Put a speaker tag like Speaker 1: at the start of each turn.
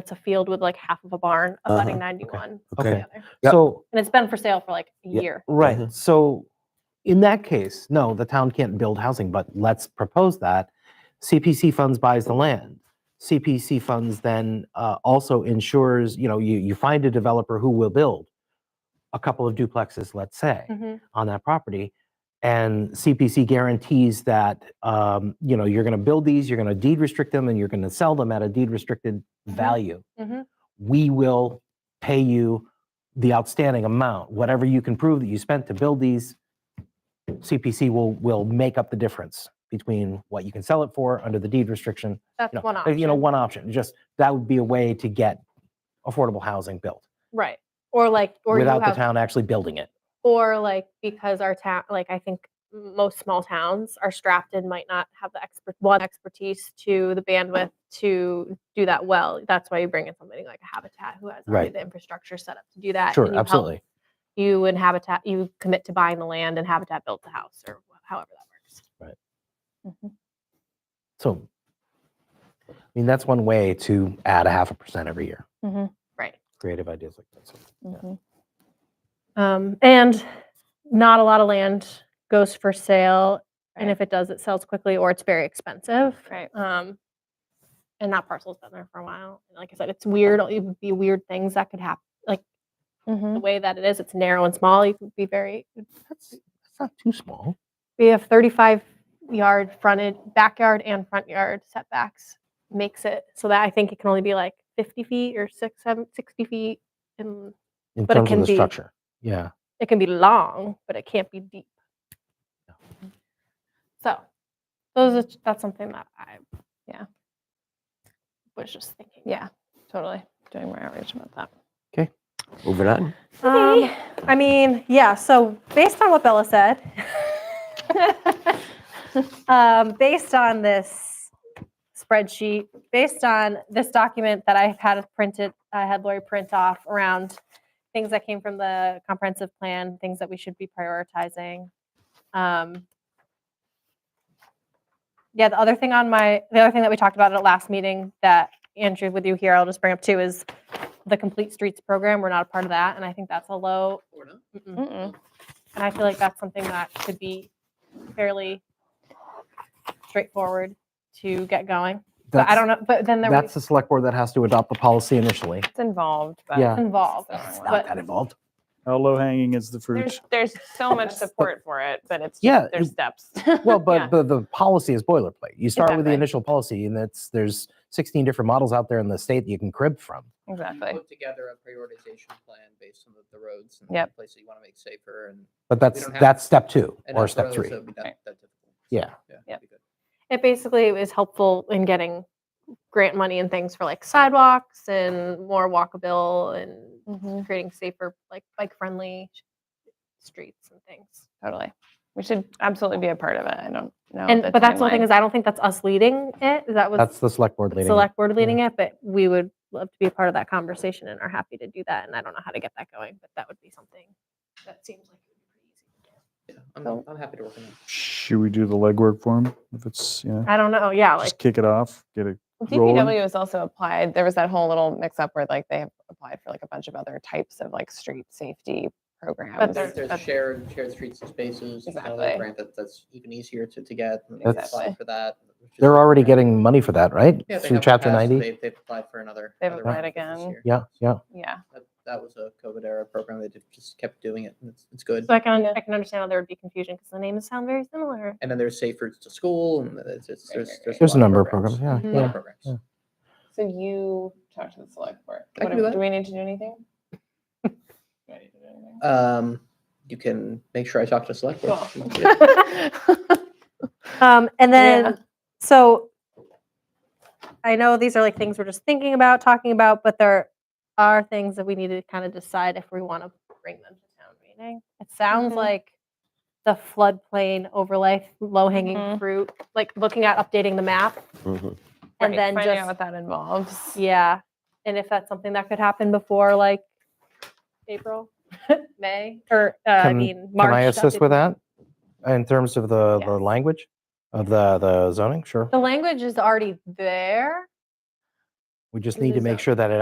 Speaker 1: it's a field with like half of a barn
Speaker 2: Uh-huh,
Speaker 1: abutting 91 on the
Speaker 3: Okay.
Speaker 1: other.
Speaker 3: Yep.
Speaker 2: So,
Speaker 1: and it's been for sale for like a
Speaker 3: Yep.
Speaker 1: year
Speaker 2: right,
Speaker 3: Mhm.
Speaker 2: so in that case, no, the town can't build housing, but let's propose that. CPC funds buys the land. CPC funds then uh, also ensures, you know, you, you find a developer who will build a couple of duplexes, let's say.
Speaker 1: Mhm.
Speaker 2: on that property. And CPC guarantees that, um, you know, you're going to build these, you're going to deed restrict them, and you're going to sell them at a deed restricted
Speaker 1: Mhm.
Speaker 2: value.
Speaker 1: Mhm.
Speaker 2: We will pay you the outstanding amount, whatever you can prove that you spent to build these. CPC will, will make up the difference between what you can sell it for under the deed restriction.
Speaker 1: that's
Speaker 2: You know,
Speaker 1: one
Speaker 2: uh,
Speaker 1: option
Speaker 2: you know, one option, just, that would be a way to get affordable housing built
Speaker 1: right or like or you
Speaker 2: without the
Speaker 1: have
Speaker 2: town actually building it.
Speaker 1: or like because our town like i think most small towns are strapped and might not have the expert one expertise to the bandwidth to do that well that's why you bring in somebody like a habitat who has already
Speaker 2: Right.
Speaker 1: the infrastructure set up to do that
Speaker 2: Sure,
Speaker 1: and you help-
Speaker 2: absolutely.
Speaker 1: you and habitat you commit to buying the land and habitat builds the house or wh- however that works
Speaker 2: So, I mean, that's one way to add a half a percent every year.
Speaker 1: right
Speaker 2: Creative ideas like that.
Speaker 1: um, and not a lot of land goes for sale and if it does it sells quickly or it's very expensive
Speaker 4: Right.
Speaker 1: um and that parcel's been there for a while and like i said it's weird it would be weird things that could happen
Speaker 4: Mm-hmm.
Speaker 1: the way that it is it's narrow and small you could be very
Speaker 2: That's, that's not too small.
Speaker 1: we have 35 yard fronted backyard and front yard setbacks makes it so that i think it can only be like 50 feet or six seven 60 feet and
Speaker 2: In
Speaker 1: But it
Speaker 2: terms
Speaker 1: can
Speaker 2: of the
Speaker 1: be-
Speaker 2: structure. Yeah.
Speaker 1: it can be long but it can't be deep so those are, that's something that i yeah was just thinking
Speaker 4: Yeah, totally. Doing more outreach about that.
Speaker 3: Moving on.
Speaker 1: Um, I mean, yeah. So based on what Bella said, um, based on this spreadsheet, based on this document that I had printed, I had Lori print off around things that came from the comprehensive plan, things that we should be prioritizing. Um, yeah, the other thing on my, the other thing that we talked about at last meeting that Andrew, with you here, I'll just bring up too is the Complete Streets program. We're not a part of that, and I think that's a low. Mm-mm.
Speaker 4: Mm-mm.
Speaker 1: And I feel like that's something that could be fairly straightforward to get going. But I don't know, but then there was
Speaker 2: That's the select board that has to adopt the policy initially.
Speaker 4: It's involved, but
Speaker 2: Yeah.
Speaker 1: involved.
Speaker 4: It's not
Speaker 1: But
Speaker 2: that involved.
Speaker 5: How low hanging is the fruit?
Speaker 4: there's there's so much support for it, but it's
Speaker 2: Yeah,
Speaker 4: just, there's
Speaker 2: it-
Speaker 4: steps.
Speaker 2: Well, but
Speaker 4: Yeah.
Speaker 2: the, the policy is boilerplate. You start with the
Speaker 4: Exactly.
Speaker 2: initial policy, and that's there's 16 different models out there in the state that you can crib from.
Speaker 4: exactly.
Speaker 6: Put together a prioritization plan based on the- the roads and
Speaker 4: Yep.
Speaker 6: places you want to make safer and.
Speaker 2: But that's
Speaker 6: don't have-
Speaker 2: that's step two
Speaker 6: and
Speaker 2: or
Speaker 6: that's
Speaker 2: step
Speaker 6: roads,
Speaker 2: three.
Speaker 6: so it'd be not
Speaker 4: Right.
Speaker 6: that difficult.
Speaker 2: Yeah.
Speaker 6: Yeah. it'd
Speaker 4: Yep.
Speaker 6: be good.
Speaker 1: it basically is helpful in getting grant money and things for like sidewalks and more walkable and
Speaker 4: Mhm.
Speaker 1: creating safer, like bike-friendly streets and things.
Speaker 4: Totally. We should absolutely be a part of it. I don't know.
Speaker 1: And,
Speaker 4: the
Speaker 1: but that's the thing
Speaker 4: timeline.
Speaker 1: is, I don't think that's us leading it. That was
Speaker 2: That's the select board leading. it.
Speaker 1: select board leading it, but we would love to be a part of that conversation and are happy to do that. And I don't know how to get that going, but that would be something that seems like. it would be pretty easy to do.
Speaker 6: Yeah, I'm,
Speaker 4: So-
Speaker 6: I'm happy to work on that.
Speaker 5: Should we do the legwork for him? If it's, you know,
Speaker 1: I don't know. Yeah, like
Speaker 5: just kick it off, get it. rolling.
Speaker 4: DPW has also applied. There was that whole little mix-up where like they have applied for like a bunch of other types of like street safety programs.
Speaker 1: But
Speaker 6: There's,
Speaker 1: there's-
Speaker 6: there's shared, shared streets and spaces. it's another
Speaker 4: Exactly.
Speaker 6: grant that- That's even easier to, to get. and
Speaker 4: That's-
Speaker 6: apply For that. which is
Speaker 2: They're
Speaker 6: another
Speaker 2: already
Speaker 6: grant.
Speaker 2: getting money for that, right? Through
Speaker 6: Yeah, they have in the
Speaker 2: chapter
Speaker 6: past,
Speaker 2: 90?
Speaker 6: They've, they've applied for another.
Speaker 4: They've
Speaker 6: another
Speaker 4: applied
Speaker 6: grant this
Speaker 4: again.
Speaker 6: year.
Speaker 2: Yeah, yeah.
Speaker 4: yeah.
Speaker 6: That- That was a COVID era program. They did- just kept doing it and it's, it's good.
Speaker 1: so I can
Speaker 4: Yeah.
Speaker 1: I can understand how there would be confusion because the names sound very similar.
Speaker 6: And then there's safe routes to school and it's, it's,
Speaker 4: Right, right,
Speaker 6: there's, there's.
Speaker 4: right.
Speaker 2: There's a
Speaker 6: lot
Speaker 2: number of programs. Yeah,
Speaker 1: Mhm.
Speaker 6: A lot
Speaker 2: yeah.
Speaker 6: of programs.
Speaker 2: yeah.
Speaker 4: So you talked to the select board.
Speaker 6: I can
Speaker 4: What
Speaker 6: do
Speaker 4: do,
Speaker 6: that.
Speaker 4: do we need to do anything? Do I need to do anything?
Speaker 6: Um, you can make sure I talk to select board.
Speaker 4: Cool.
Speaker 6: Yeah.
Speaker 1: Um, and
Speaker 4: Yeah.
Speaker 1: then so I know these are like things we're just thinking about, talking about, but there are things that we need to kind of decide if we want to bring them to town meeting. It sounds
Speaker 4: Mhm.
Speaker 1: like the floodplain overlay, low hanging
Speaker 4: Mhm.
Speaker 1: fruit, like looking at updating the map
Speaker 3: Mhm.
Speaker 1: and
Speaker 4: Right,
Speaker 1: then
Speaker 4: finding
Speaker 1: just
Speaker 4: out what that involves.
Speaker 1: yeah and if that's something that could happen before like april may or uh, i
Speaker 2: Can-
Speaker 1: mean march
Speaker 2: Can I
Speaker 1: that's
Speaker 2: assist
Speaker 1: it.
Speaker 2: with that in terms of the, the
Speaker 4: Yes.
Speaker 2: language of the, the zoning? Sure.
Speaker 1: the language is already there
Speaker 2: We just
Speaker 1: It
Speaker 2: need to
Speaker 1: is
Speaker 2: make
Speaker 1: up.
Speaker 2: sure that it